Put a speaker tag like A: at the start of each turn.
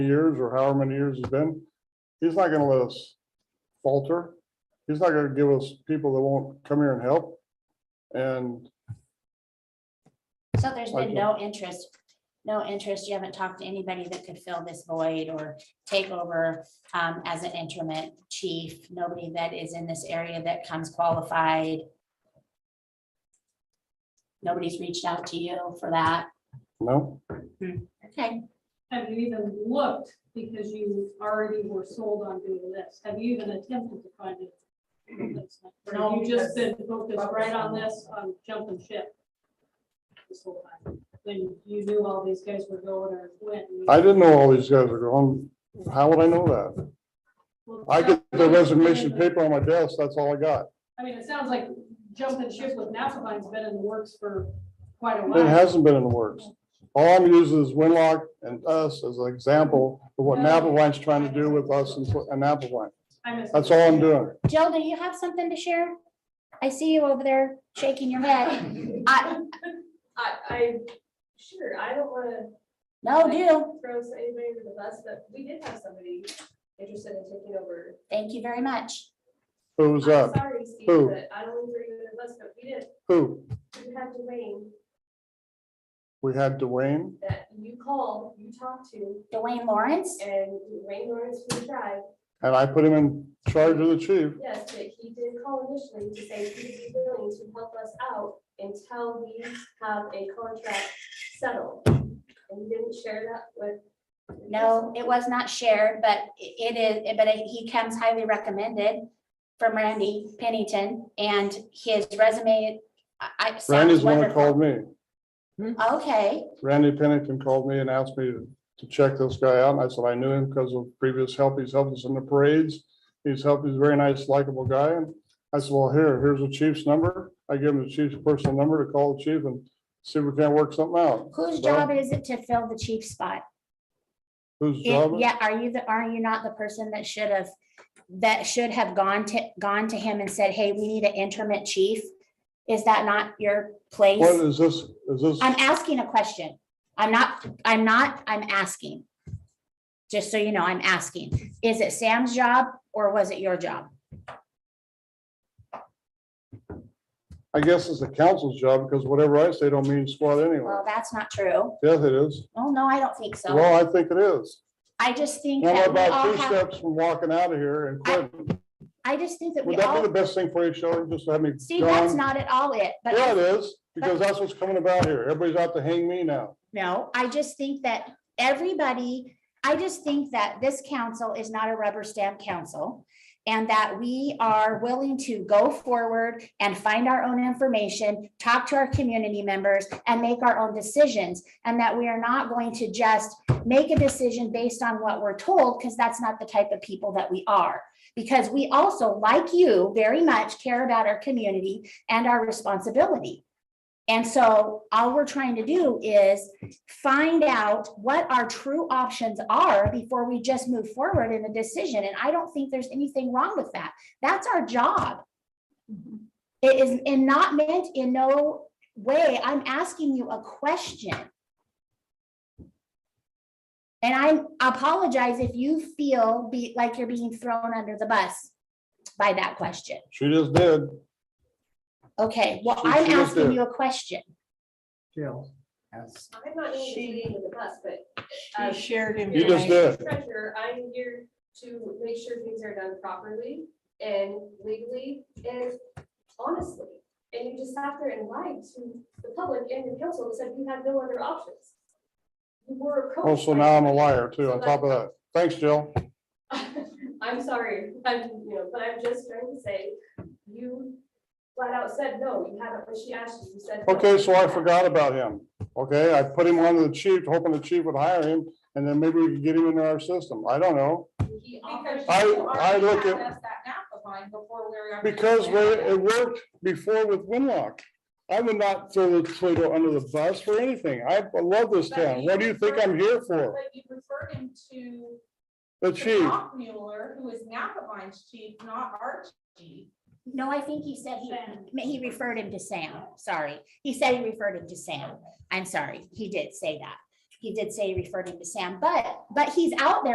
A: years or however many years it's been, he's not gonna let us falter. He's not gonna give us people that won't come here and help. And
B: So there's
A: Like
B: been no interest, no interest, you haven't talked to anybody that could fill this void or take over um, as an interim chief, nobody that is in this area that comes qualified. Nobody's reached out to you for that,
A: no,
B: okay?
C: Have you even looked, because you already were sold on doing this, have you even attempted to find it? Or
D: No,
C: have you just
D: because-
C: been focused right on this, on jumping ship? This whole time, when you knew all these guys were going or went. and you-
A: I didn't know all these guys were going. How would I know that?
C: Well,
A: I get the resignation
C: I
A: paper on my desk, that's all I got.
C: mean, it sounds like jumping ship with Nafaline's been in the works for quite a
A: It
C: while.
A: hasn't been in the works. All I'm using is Winlock and us as an example of what Napavine's trying to do with us and and Napavine.
C: I missed it.
A: That's all I'm doing.
B: Jill, do you have something to share? I see you over there shaking your head. I,
D: I, I, sure, I don't wanna
B: no, do,
D: throw anybody under the bus, but we did have somebody interested in taking over.
B: thank you very much.
A: Who's
D: I'm
A: that?
D: Sorry, Steve,
A: Who?
D: but I don't want to throw you under the bus, but we did,
A: Who?
D: you had Dwayne
A: We had Dwayne.
D: that you called, you talked to,
B: Dwayne Lawrence,
D: and Dwayne Lawrence from the tribe.
A: And I put him in charge of the chief.
D: Yes, but he did call initially to say he would be willing to help us out until we have a contract settled. And he didn't share that with.
B: No, it was not shared, but i- it is, but he comes highly recommended from Randy Pennington and his resume. I- I. sounds
A: Randy's the one that
B: wonderful.
A: called me.
B: Okay,
A: Randy Pennington called me and asked me to check this guy out. And I said, I knew him because of previous help. He's helped us in the parades. He's helped, he's a very nice, likable guy. And I said, well, here, here's the chief's number. I gave him the chief's personal number to call the chief and see if we can't work something out.
B: whose
A: Well-
B: job is it to fill the chief spot?
A: Whose job?
B: It- Yeah, are you the, are you not the person that should have, that should have gone to, gone to him and said, hey, we need an interim chief? Is that not your place?
A: What is this? Is this,
B: I'm asking a question. I'm not, I'm not, I'm asking. Just so you know, I'm asking, is it Sam's job or was it your job?
A: I guess it's the council's job because whatever I say don't mean squat anyway.
B: Well, that's not true.
A: Yes, it is.
B: Oh, no, I don't think so.
A: Well, I think it is.
B: I just think
A: Well, I'm
B: that we
A: about
B: all
A: two
B: have,
A: steps from walking out of here and
B: I-
A: quitting.
B: I just think that we
A: Would that be
B: all,
A: the best thing for you, Shelley? Just have me.
B: see, that's
A: gone?
B: not at all it, but.
A: Yeah, it is, because that's what's coming about here. Everybody's out to hang me now.
B: No, I just think that everybody, I just think that this council is not a rubber stamp council. And that we are willing to go forward and find our own information, talk to our community members and make our own decisions. And that we are not going to just make a decision based on what we're told, because that's not the type of people that we are. Because we also, like you, very much care about our community and our responsibility. And so all we're trying to do is find out what our true options are before we just move forward in a decision. And I don't think there's anything wrong with that. That's our job.
A: Mm-hmm.
B: It is and not meant in no way. I'm asking you a question. And I apologize if you feel be like you're being thrown under the bus by that question.
A: She just did.
B: Okay, well,
A: She- she
B: I'm
A: was there.
B: asking you a question.
E: Jill has.
D: I'm not including the bus, but um,
E: She shared
A: You just
E: information.
A: did.
D: Treasurer, I'm here to make sure things are done properly and legally and honestly. And you just sat there and lied to the public and the council and said you had no other options. You were approached.
A: Oh, so
D: by
A: now I'm a
D: somebody.
A: liar too, on top of that. Thanks, Jill.
D: I'm sorry, I'm, you know, but I'm just trying to say, you flat out said no, you haven't, when she asked you, you said. no.
A: Okay, so I forgot about him. Okay, I put him on to the chief, hoping the chief would hire him, and then maybe we could get him into our system. I don't know.
D: He offered-
F: Because
A: I-
F: you
A: I
F: already
A: look
F: had
A: at-
F: us that Napa vine before we were.
A: Because we- it worked before with Winlock. I would not throw the Toledo under the bus for anything. I love this town. What do you think I'm here for?
F: But you referred him to.
A: The
F: to
A: chief.
F: Doc Mueller, who is Napa vine's chief, not our chief.
B: No, I think he said
C: Sam.
B: he, he referred him to Sam, sorry. He said he referred him to Sam. I'm sorry, he did say that. He did say he referred him to Sam, but, but he's out there